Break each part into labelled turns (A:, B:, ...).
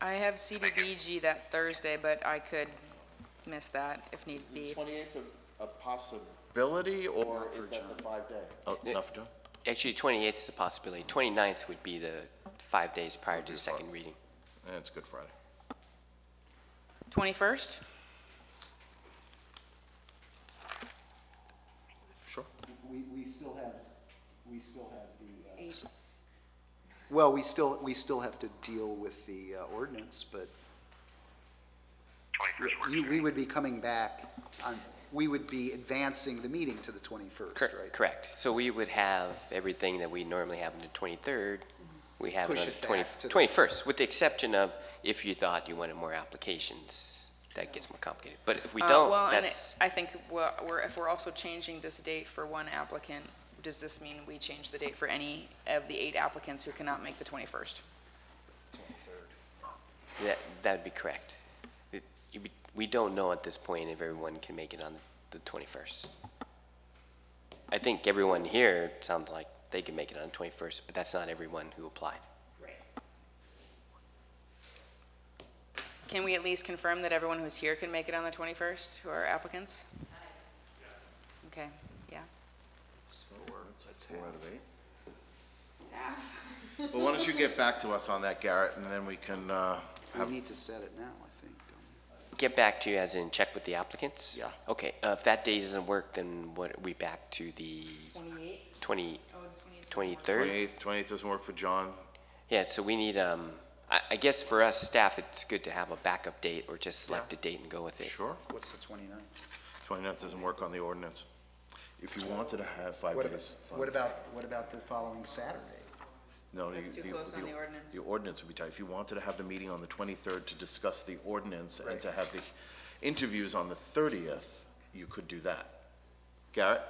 A: I have CDBG that Thursday, but I could miss that if need be.
B: Twenty-eighth a possibility, or is that the five day?
C: Oh,
D: Yeah.
C: enough, John?
D: Actually, 28th is a possibility. 29th would be the five days prior to the second reading.
C: Yeah, it's Good Friday.
A: 21st?
C: Sure.
E: We, we still have, we still have the, uh,
A: Eight.
E: well, we still, we still have to deal with the uh, ordinance, but you, we would be coming back on, we would be advancing the meeting to the twenty-first,
D: Cor-
E: right?
D: Correct. So we would have everything that we normally have on the 23rd. We have it
E: Mm-hmm. Push
D: on the
E: it back
D: 20
E: to the-
D: 21st, with the exception of if you thought you wanted more applications, that gets more complicated. But if we
A: Uh,
D: don't,
A: Well, and
D: that's,
A: I think we're, we're- if we're also changing this date for one applicant, does this mean we change the date for any of the eight applicants who cannot make the 21st?
D: that- that'd be correct. It- you be- We don't know at this point if everyone can make it on the 21st. I think everyone here, it sounds like they can make it on the 21st, but that's not everyone who applied.
A: Can we at least confirm that everyone who's here can make it on the 21st, who are applicants? Okay, yeah.
C: That's four out of eight. Well, why don't you get back to us on that, Garrett, and then we can, uh,
E: We
C: have,
E: need to set it now, I think, don't we?
D: Get back to you as in check with the applicants?
C: Yeah.
D: Okay, uh, if that day doesn't work, then what, are we back to the
A: 28?
D: 20,
A: Oh, the 28th.
D: 23rd?
C: twenty-eighth, twenty-eighth doesn't work for John.
D: Yeah, so we need, um, I, I guess for us, staff, it's good to have a backup date or just select a date and go with it.
C: Sure.
E: What's the twenty-ninth?
C: Twenty-ninth doesn't work on the ordinance. If you wanted to have five
E: What about,
C: days. fine.
E: what about, what about the following Saturday?
C: No, you-
A: That's too
C: the-
A: close on the ordinance.
C: The ordinance would be tight. If you wanted to have the meeting on the 23rd to discuss the ordinance and to have the interviews on the 30th, you could do that. Garrett?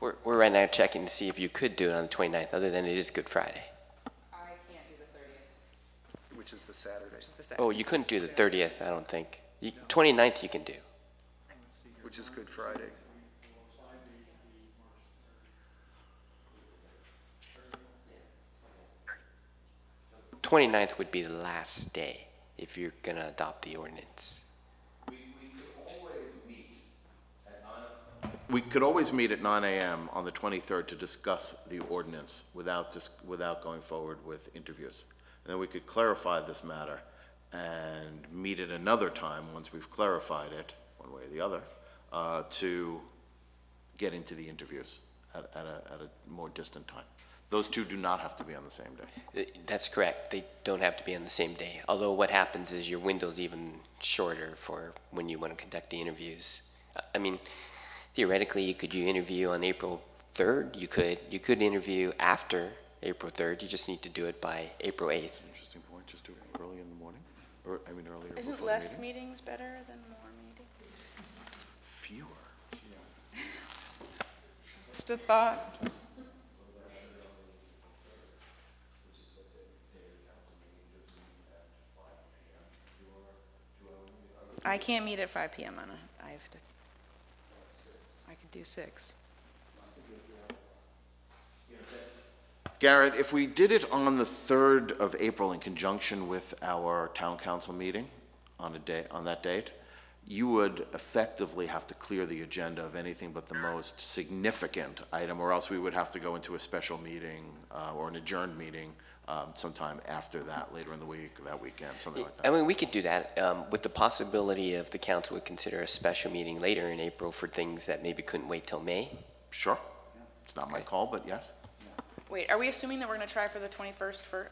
D: We're, we're right now checking to see if you could do it on the 29th, other than it is Good Friday.
A: I can't do the 30th.
E: Which is the Saturday,
A: Just the second.
D: Oh, you couldn't do the 30th, I don't think. You- 29th you can do.
E: which is Good Friday.
D: Twenty-ninth would be the last day if you're gonna adopt the ordinance.
C: We could always meet at 9. We could always meet at 9 AM on the 23rd to discuss the ordinance without, dis- without going forward with interviews. And then we could clarify this matter and meet at another time, once we've clarified it, one way or the other, uh, to get into the interviews at, at a, at a more distant time. Those two do not have to be on the same day.
D: Uh, That's correct, they don't have to be on the same day, although what happens is your window's even shorter for when you wanna conduct the interviews. Uh, I mean, theoretically, you could you interview on April third, you could, you could interview after April third, you just need to do it by April eighth.
C: Interesting point, just do it early in the morning, or, I mean, earlier before
A: Isn't
C: the
A: less
C: meeting.
A: meetings better than more meetings?
C: Fewer.
A: Just a thought. I can't meet at five PM on a, I have to, I could do six.
C: Garrett, if we did it on the 3rd of April in conjunction with our town council meeting on a day, on that date, you would effectively have to clear the agenda of anything but the most significant item, or else we would have to go into a special meeting uh, or an adjourned meeting um, sometime after that, later in the week, that weekend, something like
D: I
C: that.
D: mean, we could do that, um, with the possibility of the council would consider a special meeting later in April for things that maybe couldn't wait till May.
C: Sure. It's not my call, but yes.
A: Wait, are we assuming that we're gonna try for the twenty-first for,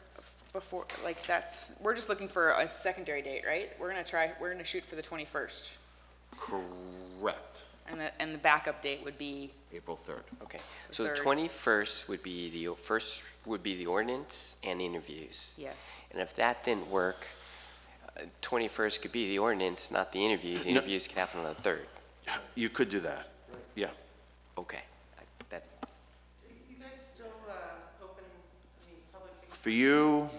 A: before, like, that's, we're just looking for a secondary date, right? We're gonna try, we're gonna shoot for the twenty-first,
C: Correct.
A: and the, and the backup date would be,
C: April 3rd.
D: Okay, so the
A: Third.
D: 21st would be the, o- first would be the ordinance and interviews.
A: yes.
D: And if that didn't work, uh, 21st could be the ordinance, not the interviews. The
C: No.
D: Interviews could happen on the 3rd.
C: You could do that. Yeah.
D: Okay, I- that,
F: You guys still, uh, open, I mean, public
C: For you,